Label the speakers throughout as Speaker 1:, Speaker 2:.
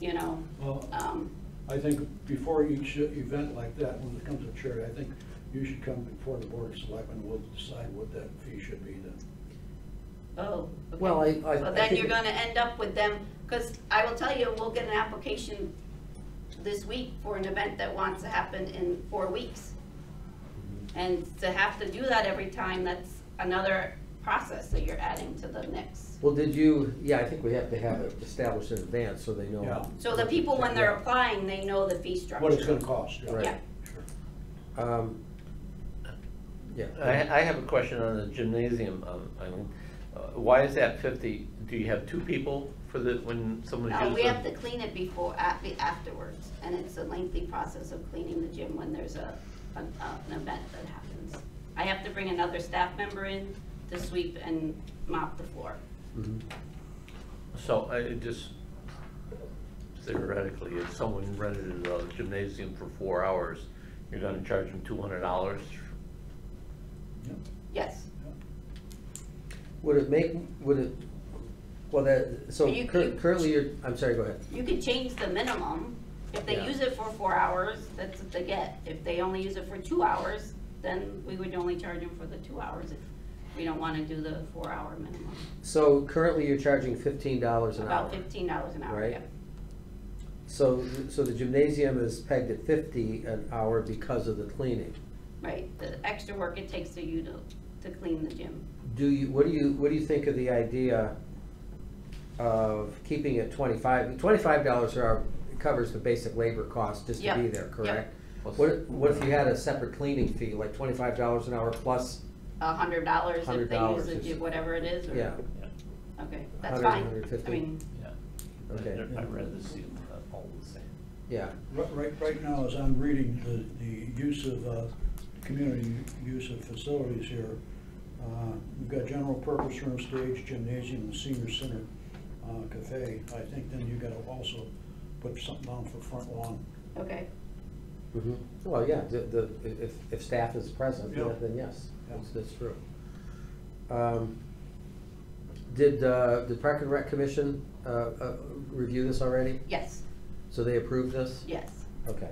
Speaker 1: you know.
Speaker 2: Well,
Speaker 1: Um,
Speaker 2: I think before each event like that, when it comes to charity, I think you should come before the board of selectmen will decide what that fee should be then.
Speaker 1: Oh, okay.
Speaker 3: Well, I- I- I
Speaker 1: Well, then
Speaker 3: think
Speaker 1: you're
Speaker 3: it-
Speaker 1: gonna end up with them, because I will tell you, we'll get an application this week for an event that wants to happen in four weeks. And to have to do that every time, that's another process that you're adding to the mix.
Speaker 3: Well, did you, yeah, I think we have to have it established in advance so they
Speaker 2: Yeah.
Speaker 3: know.
Speaker 1: So the people, when they're applying, they know the fee structure.
Speaker 2: What it's gonna cost,
Speaker 3: Right.
Speaker 1: Yeah.
Speaker 2: yeah. Sure.
Speaker 3: Um, Yeah.
Speaker 4: I, I have a question on the gymnasium, um, I mean, uh, why is that fifty? Do you have two people for the, when someone uses?
Speaker 1: No, we have to
Speaker 4: it?
Speaker 1: clean it before, at- afterwards, and it's a lengthy process of cleaning the gym when there's a, a- an event that happens. I have to bring another staff member in to sweep and mop the floor.
Speaker 3: Mhm.
Speaker 4: So I it just theoretically, if someone rented a gymnasium for four hours, you're gonna charge them two hundred dollars?
Speaker 2: Yeah.
Speaker 1: Yes,
Speaker 3: Would it make, would it, well, that, so
Speaker 1: You-
Speaker 3: cur-
Speaker 1: you-
Speaker 3: currently you're, I'm sorry, go ahead.
Speaker 1: you could change the minimum. If they
Speaker 3: Yeah.
Speaker 1: use it for four hours, that's what they get. If they only use it for two hours, then we would only charge them for the two hours if we don't wanna do the four-hour minimum.
Speaker 3: So currently you're charging fifteen dollars an hour.
Speaker 1: About fifteen dollars an hour,
Speaker 3: Right.
Speaker 1: yeah.
Speaker 3: So, so the gymnasium is pegged at fifty an hour because of the cleaning.
Speaker 1: Right, the extra work it takes to you to, to clean the gym.
Speaker 3: Do you, what do you, what do you think of the idea of keeping it twenty-five, twenty-five dollars an hour covers the basic labor cost just to
Speaker 1: Yep,
Speaker 3: be there,
Speaker 1: yep.
Speaker 3: correct? What, if- what if you had a separate cleaning fee, like twenty-five dollars an hour plus,
Speaker 1: a hundred dollars if they use
Speaker 3: $100
Speaker 1: it,
Speaker 3: is-
Speaker 1: do whatever it is, or?
Speaker 3: yeah,
Speaker 1: Okay, that's
Speaker 3: 100,
Speaker 1: fine.
Speaker 3: 150.
Speaker 1: I mean,
Speaker 4: Yeah.
Speaker 3: Okay.
Speaker 4: They're- I'd rather see them uh, all the same.
Speaker 3: yeah.
Speaker 2: Right, right, right now, as I'm reading the, the use of, uh, community use of facilities here, uh, we've got general purpose room, stage, gymnasium, and senior center, uh, cafe. I think then you gotta also put something down for front lawn.
Speaker 1: okay,
Speaker 3: Mhm. Well, yeah, the, the, if, if staff is present,
Speaker 2: Mm-hmm. Yeah.
Speaker 3: yeah, then yes,
Speaker 2: Yeah.
Speaker 3: that's, that's true. Um, Did, uh, the Park and Rec Commission, uh, uh, review this already?
Speaker 1: yes,
Speaker 3: So they approved this?
Speaker 1: yes.
Speaker 3: Okay.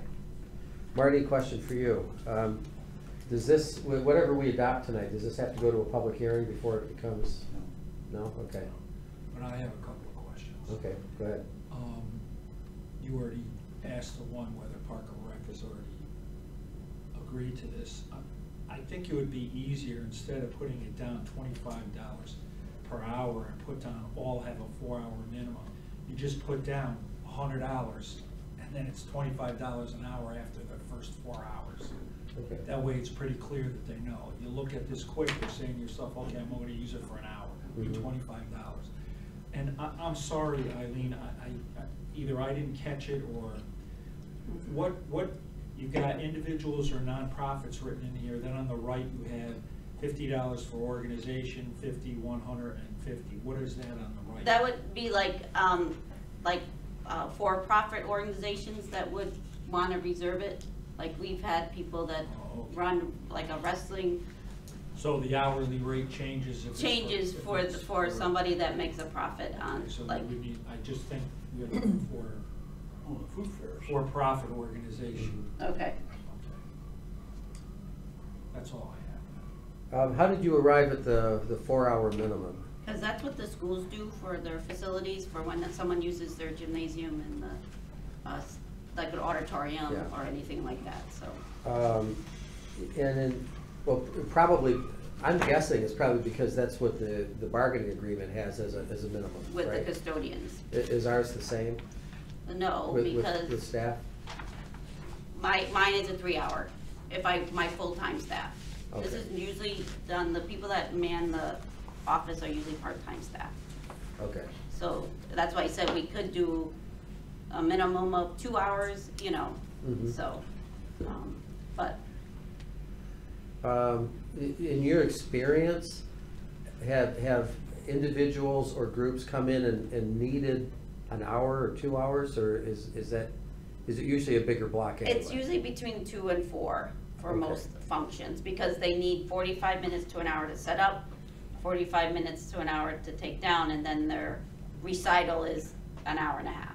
Speaker 3: Marty, question for you. Um, does this, wh- whatever we adopt tonight, does this have to go to a public hearing before it becomes,
Speaker 2: you know.
Speaker 3: no? Okay,
Speaker 5: But I have a couple of questions.
Speaker 3: okay, go ahead.
Speaker 5: Um, you already asked the one whether Park and Rec has already agreed to this. I- I think it would be easier, instead of putting it down twenty-five dollars per hour and put down all have a four-hour minimum, you just put down a hundred dollars, and then it's twenty-five dollars an hour after the first four hours.
Speaker 3: Okay.
Speaker 5: That way, it's pretty clear that they know. You look at this quick, you're saying to yourself, okay, I'm only gonna use it for an hour, it'll be
Speaker 3: Mhm.
Speaker 5: twenty-five dollars. And I, I'm sorry, Eileen, I, I, I- either I didn't catch it or, what, what, you've got individuals or nonprofits written in here, then on the right you have fifty dollars for organization, fifty, one hundred, and fifty. What is that on the right?
Speaker 1: That would be like, um, like, uh, for-profit organizations that would wanna reserve it. Like, we've had people that
Speaker 5: Oh, okay.
Speaker 1: run, like a wrestling
Speaker 5: So the hourly rate changes if it's. for-
Speaker 1: changes
Speaker 5: if
Speaker 1: for,
Speaker 5: it's
Speaker 1: for somebody that makes a profit on,
Speaker 5: Okay, So
Speaker 1: like,
Speaker 5: we need, I just think we have for
Speaker 2: Oh, the food fairs.
Speaker 5: for-profit organization.
Speaker 1: okay.
Speaker 5: That's all I
Speaker 3: Um, how did you arrive at the, the four-hour minimum?
Speaker 1: Because that's what the schools do for their facilities, for when someone uses their gymnasium and the, uh, s- like an auditorium
Speaker 3: Yeah.
Speaker 1: or anything like that, so.
Speaker 3: Um, And then, well, probably, I'm guessing it's probably because that's what the, the bargaining agreement has as a, as a minimum,
Speaker 1: With the
Speaker 3: right? I-
Speaker 1: custodians.
Speaker 3: Is ours the same
Speaker 1: No,
Speaker 3: with, with, with
Speaker 1: Oh, because
Speaker 3: staff?
Speaker 1: my, mine is a three-hour, if I, my full-time staff. This
Speaker 3: Okay.
Speaker 1: is usually done, the people that man the office are usually part-time staff.
Speaker 3: Okay,
Speaker 1: So that's why I said we could do a minimum of two hours, you know,
Speaker 3: Mhm.
Speaker 1: so, um, but
Speaker 3: Um, i- In your experience, have, have individuals or groups come in and, and needed an hour or two hours, or is, is that, is it usually a bigger block anyway?
Speaker 1: It's usually between two and four for
Speaker 3: Okay.
Speaker 1: most functions, because they need forty-five minutes to an hour to set up, forty-five minutes to an hour to take down, and then their recital is an hour and a half.